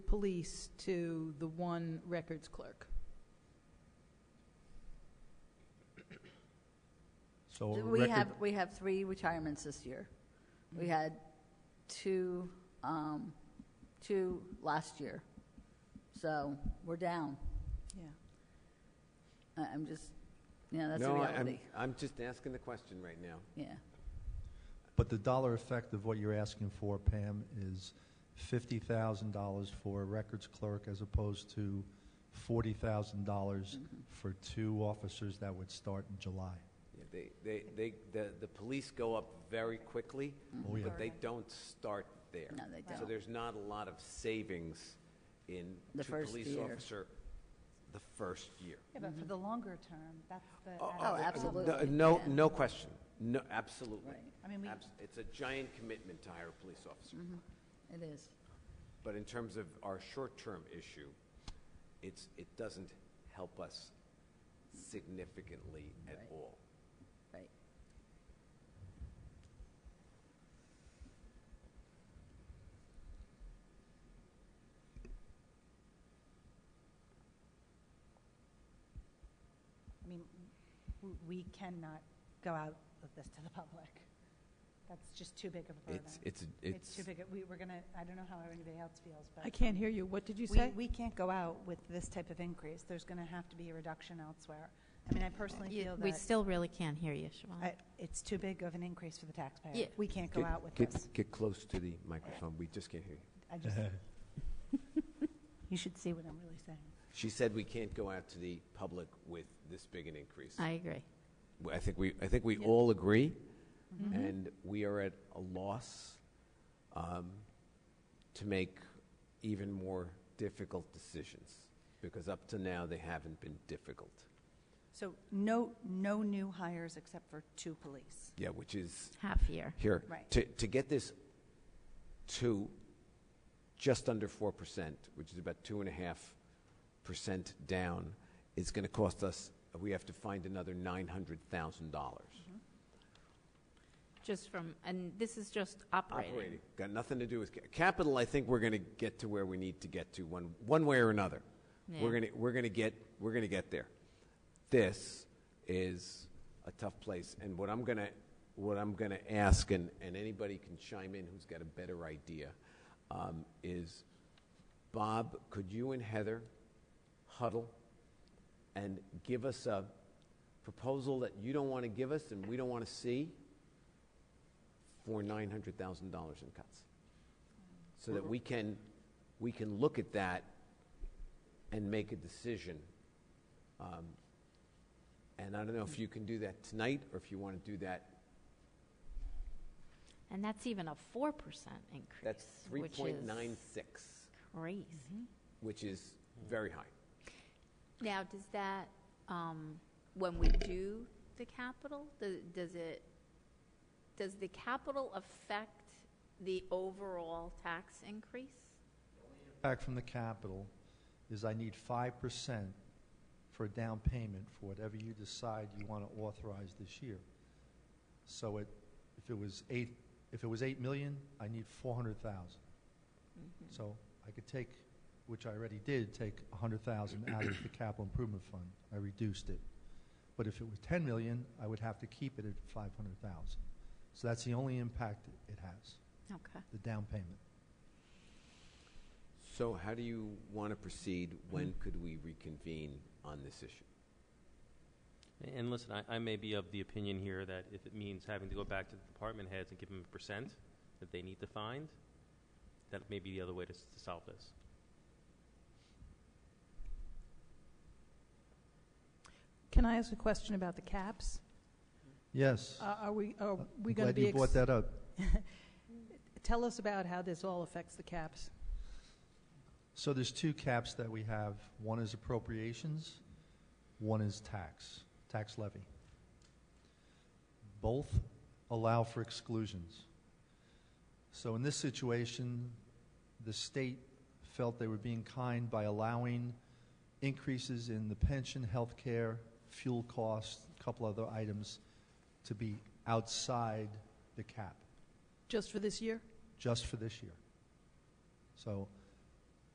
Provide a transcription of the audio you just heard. police to the one records clerk. So a We record- have, we have three retirements this year. We Mm-hmm. had two, um, two last year. So we're down. Yeah. I- I'm just, you know, that's the No, I- I'm, reality. I'm just asking the question right now. Yeah. But the dollar effect of what you're asking for, Pam, is fifty thousand dollars for a records clerk as opposed to forty thousand dollars Mm-hmm. for two officers that would start in July. Yeah, They, they, they, the, the police go up very quickly, Oh, yeah. but they don't start there. No, they So don't. there's not a lot of savings in The to first police year. officer the first year. Yeah, but for the longer term, that's the. Oh, Oh, uh, absolutely, No, yeah. no question. No, absolutely. Right. I mean, we- Abs- It's a giant commitment to hire a police officer. Mm-hmm. It is. But in terms of our short-term issue, it's, it doesn't help us significantly at Right. all. Right. I mean, w- we cannot go out with this to the public. That's just too big of a burden. It's, it's, It's it's, too big. of- We, we're gonna, I don't know how anybody else feels, but. I can't hear you. What did you we- say? We can't go out with this type of increase. There's gonna have to be a reduction elsewhere. I mean, I personally You- feel We that still really can't hear you, Siobhan. I- it's too big of an increase for the taxpayer. Yeah. We can't go out with get, this. Get close to the microphone. We just can't hear you. I just, you should see what I'm really saying. She said we can't go out to the public with this big an increase. I agree. I think we, I think we all agree, Mm-hmm. and we are at a loss um, to make even more difficult decisions because up to now they haven't been difficult. So no, no new hires except for two police. Yeah, which is Half year. here Right. to to get this to just under four percent, which is about two and a half percent down, is going to cost us. We have to find another nine hundred thousand dollars. Just from, and this is just operating. Operating. Got nothing to do with ca- capital. I think we're going to get to where we need to get to one, one way or another. We're Yeah. going to, we're going to get, we're going to get there. This is a tough place. And what I'm going to, what I'm going to ask, and, and anybody can chime in who's got a better idea, um, is Bob, could you and Heather huddle and give us a proposal that you don't want to give us and we don't want to see? for nine hundred thousand dollars in cuts, so Mm-hmm. that we can we can look at that and make a decision. Um, and I don't know if you can do that tonight or if you want to do that. And that's even a 4% increase. That's three which point nine is six, Crazy. which is very high. Mm-hmm. Now, does that, um, when we do the capital, do- does it, does the capital affect the overall tax increase? Back from the capital is I need five percent for a down payment for whatever you decide you want to authorize this year. So it, if it was eight, if it was eight million, I need four hundred thousand. Mm-hmm. So I could take, which I already did, take a hundred thousand out of the capital improvement fund. I reduced it. But if it was ten million, I would have to keep it at five hundred thousand. So that's the only impact it has, Okay. the down payment. So how do you want to proceed? When could we reconvene on this issue? And listen, I, I may be of the opinion here that if it means having to go back to the department heads and give them a percent that they need to find, that may be the other way to, s- to solve this. Can I ask a question about the caps? Yes. Are are we, are Uh, we going I'm to glad be? you brought ex- that up. Tell us about how this all affects the caps. So there's two caps that we have. One is appropriations, one is tax, tax levy. Both allow for exclusions. So in this situation, the state felt they were being kind by allowing increases in the pension, health care, fuel costs, a couple other items to be outside the cap Just for this year? just for this year. So